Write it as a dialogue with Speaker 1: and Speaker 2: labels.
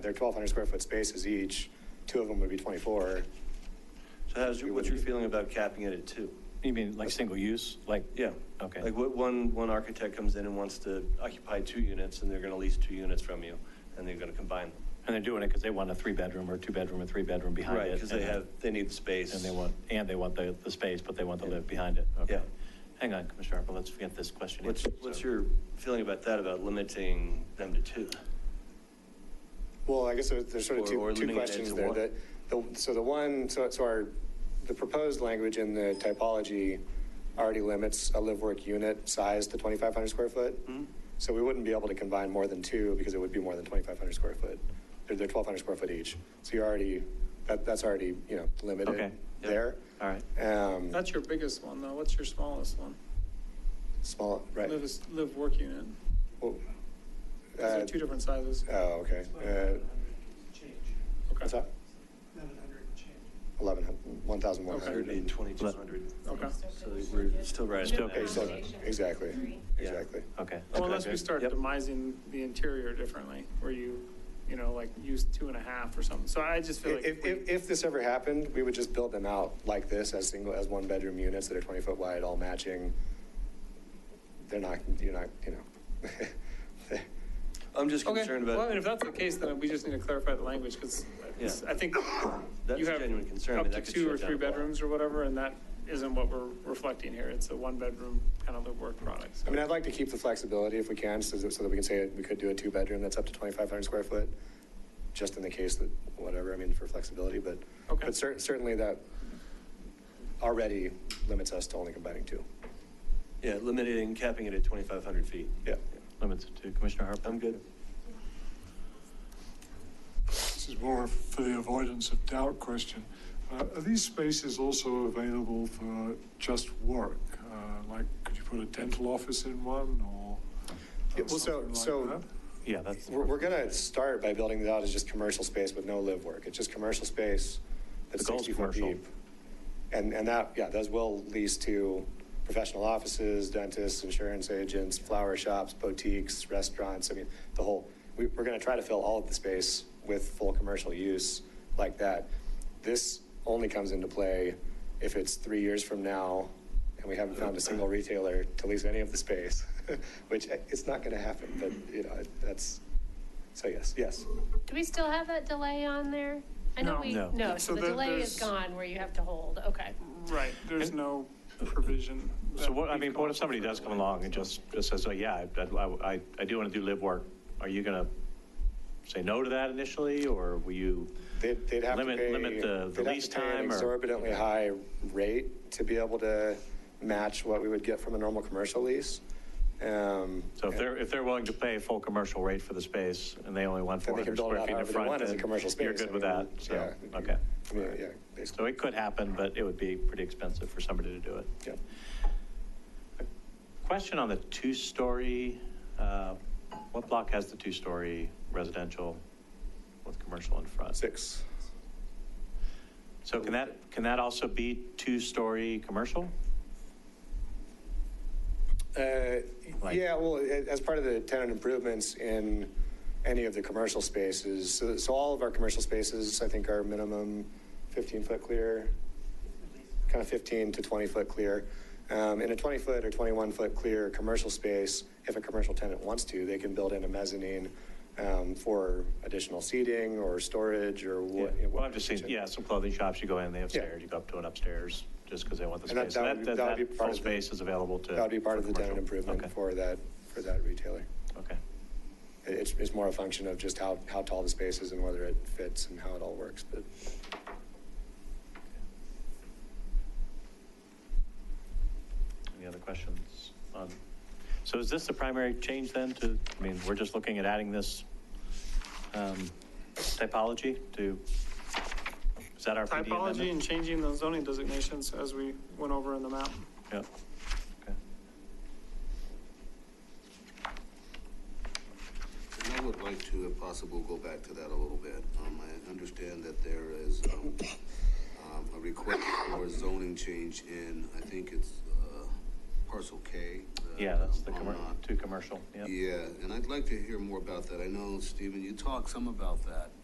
Speaker 1: They're 1,200 square foot spaces each, two of them would be 24.
Speaker 2: So how's your, what's your feeling about capping it at two?
Speaker 3: You mean like single use, like?
Speaker 2: Yeah.
Speaker 3: Okay.
Speaker 2: Like what, one, one architect comes in and wants to occupy two units and they're gonna lease two units from you and they're gonna combine them.
Speaker 3: And they're doing it because they want a three-bedroom or two-bedroom or three-bedroom behind it.
Speaker 2: Right, because they
Speaker 3: and-
Speaker 2: have, they need the space.
Speaker 3: And they want, and they want the, the space, but they want to live behind it. Okay.
Speaker 2: Yeah.
Speaker 3: Hang on, Commissioner Harper, let's get this question.
Speaker 2: What's,
Speaker 3: answered,
Speaker 2: what's
Speaker 3: so-
Speaker 2: your feeling about that, about limiting them to two?
Speaker 1: Well, I guess there- there's sort of
Speaker 2: Or-
Speaker 1: two,
Speaker 2: or
Speaker 1: two
Speaker 2: limiting it
Speaker 1: questions
Speaker 2: to
Speaker 1: there.
Speaker 2: one.
Speaker 1: That, the, so the one, so, so our, the proposed language in the typology already limits a live-work unit size to 2,500 square foot.
Speaker 2: Mhm.
Speaker 1: So we wouldn't be able to combine more than two because it would be more than 2,500 square foot. They're, they're 1,200 square foot each. So you're already, that, that's already, you know,
Speaker 3: Okay.
Speaker 1: limited
Speaker 2: Yeah.
Speaker 1: there.
Speaker 3: All right.
Speaker 1: Um,
Speaker 4: That's your biggest one, though. What's your smallest one?
Speaker 1: small, right.
Speaker 4: Live, is- live work unit.
Speaker 1: Well,
Speaker 4: Those
Speaker 1: uh,
Speaker 4: are two different sizes.
Speaker 1: Oh, okay. Uh,
Speaker 5: Change,
Speaker 1: What's
Speaker 4: Okay.
Speaker 1: that?
Speaker 5: eleven hundred change.
Speaker 1: 11, 1,100.
Speaker 2: Thirty, twenty-two hundred.
Speaker 4: Okay.
Speaker 2: So we're still right. at
Speaker 3: Still-
Speaker 2: that.
Speaker 1: Okay, so, exactly, exactly.
Speaker 3: Okay.
Speaker 4: Well,
Speaker 3: Okay,
Speaker 4: unless we
Speaker 3: good.
Speaker 4: start
Speaker 2: Yep.
Speaker 4: demising the interior differently, where you, you know, like use two and a half or something. So I just feel like.
Speaker 1: If,
Speaker 4: we-
Speaker 1: if, if this ever happened, we would just build them out like this as single, as one-bedroom units that are 20-foot wide, all matching. They're not, you're not, you know.
Speaker 2: I'm just
Speaker 4: Okay,
Speaker 2: concerned
Speaker 4: well, I
Speaker 2: about,
Speaker 4: mean, if that's the case, then we just need to clarify the language, because
Speaker 2: Yeah.
Speaker 4: I think
Speaker 2: that's
Speaker 4: you
Speaker 2: a
Speaker 4: have
Speaker 2: genuine concern. I mean,
Speaker 4: up to
Speaker 2: that could
Speaker 4: two
Speaker 2: shut
Speaker 4: or
Speaker 2: down
Speaker 4: three
Speaker 2: a block.
Speaker 4: bedrooms or whatever, and that isn't what we're reflecting here. It's a one-bedroom kind of live work product. so.
Speaker 1: I mean, I'd like to keep the flexibility if we can, so that, so that we can say we could do a two-bedroom that's up to 2,500 square foot, just in the case that, whatever, I mean, for flexibility, but,
Speaker 4: Okay.
Speaker 1: but cer- certainly that already limits us to only combining two.
Speaker 2: yeah, limiting, capping it at twenty-five hundred feet.
Speaker 1: Yeah.
Speaker 3: Limits it to Commissioner Harper.
Speaker 2: I'm good.
Speaker 6: This is more for the avoidance of doubt question. Uh, Are these spaces also available for just work? Uh, Like, could you put a dental office in one or
Speaker 1: Yeah, well, so-
Speaker 6: something like
Speaker 1: so-
Speaker 6: that?
Speaker 3: Yeah, that's.
Speaker 1: We're, we're gonna start by building it out as just commercial space with no live work. It's just commercial space that's
Speaker 3: The goal's
Speaker 1: 60 foot
Speaker 3: commercial.
Speaker 1: deep. And, and that, yeah, those will lease to professional offices, dentists, insurance agents, flower shops, boutiques, restaurants. I mean, the whole, we, we're gonna try to fill all of the space with full commercial use like that. This only comes into play if it's three years from now and we haven't found a single retailer to lease any of the space, which eh, it's not gonna happen, but, you know, it- that's, so yes, yes.
Speaker 7: Do we still have that delay on there? I know
Speaker 4: No.
Speaker 7: we,
Speaker 3: No.
Speaker 7: no, so
Speaker 4: So
Speaker 7: the
Speaker 4: there-
Speaker 7: delay is
Speaker 4: there's-
Speaker 7: gone where you have to hold, okay.
Speaker 4: Right, there's no provision.
Speaker 3: So what, I
Speaker 4: that
Speaker 3: mean,
Speaker 4: we've
Speaker 3: what
Speaker 4: gone
Speaker 3: if somebody
Speaker 4: through.
Speaker 3: does come along and just, just says, oh, yeah, I, I, I- I do want to do live work? Are you going to say no to that initially, or will you?
Speaker 1: They'd, they'd have to
Speaker 3: Limit-
Speaker 1: pay.
Speaker 3: limit the- the
Speaker 1: they'd have to
Speaker 3: lease
Speaker 1: pay an
Speaker 3: time or-
Speaker 1: Exorbitantly high rate to be able to match what we would get from a normal commercial lease. Um,
Speaker 3: So if they're, if they're willing to pay full commercial rate for the space and they only want
Speaker 1: Then they can
Speaker 3: 400
Speaker 1: build it
Speaker 3: square
Speaker 1: out
Speaker 3: feet in
Speaker 1: however they
Speaker 3: front,
Speaker 1: want as a
Speaker 3: then
Speaker 1: commercial space.
Speaker 3: you're good
Speaker 1: I
Speaker 3: with that,
Speaker 1: mean,
Speaker 3: so,
Speaker 1: yeah.
Speaker 3: okay.
Speaker 1: I mean, yeah,
Speaker 3: So
Speaker 1: basically,
Speaker 3: it could happen, but it would be pretty expensive for somebody to do it.
Speaker 1: yeah.
Speaker 3: Question on the two-story, uh, what block has the two-story residential with commercial in front?
Speaker 1: Six.
Speaker 3: So can that, can that also be two-story commercial?
Speaker 1: Uh,
Speaker 3: Like-
Speaker 1: Yeah, well, a- as part of the tenant improvements in any of the commercial spaces, so- so all of our commercial spaces, I think, are minimum 15-foot clear, kind of 15 to 20-foot clear. Um, In a 20-foot or 21-foot clear commercial space, if a commercial tenant wants to, they can build in a mezzanine um, for additional seating or storage or what. you know,
Speaker 3: Well, I've just seen,
Speaker 1: what-
Speaker 3: yeah, some clothing shops, you go in, they have
Speaker 1: Yeah.
Speaker 3: stairs, you go up to an upstairs, just because they want the
Speaker 1: And that- that
Speaker 3: space. So
Speaker 1: would
Speaker 3: That,
Speaker 1: be-
Speaker 3: that,
Speaker 1: that would be
Speaker 3: that
Speaker 1: part
Speaker 3: full
Speaker 1: of the-
Speaker 3: space is available to.
Speaker 1: That would be part of
Speaker 3: for
Speaker 1: the tenant
Speaker 3: commercial.
Speaker 1: improvement
Speaker 3: Okay.
Speaker 1: for that, for that retailer.
Speaker 3: Okay,
Speaker 1: It- It's, it's more a function of just how, how tall the space is and whether it fits and how it all works, but.
Speaker 3: any other questions on, so is this the primary change then to, I mean, we're just looking at adding this um, typology to, is that our PD amendment?
Speaker 4: Typology and changing the zoning designations as we went over in the map.
Speaker 3: Yep. Okay.
Speaker 8: And I would like to, if possible, go back to that a little bit. Um, I understand that there is, um, um, a request for zoning change in, I think it's, uh, parcel K. uh,
Speaker 3: Yeah, that's the,
Speaker 8: on
Speaker 3: commer-
Speaker 8: not.
Speaker 3: too commercial, yeah.
Speaker 8: Yeah, and I'd like to hear more about that. I know, Stephen, you talked some about that.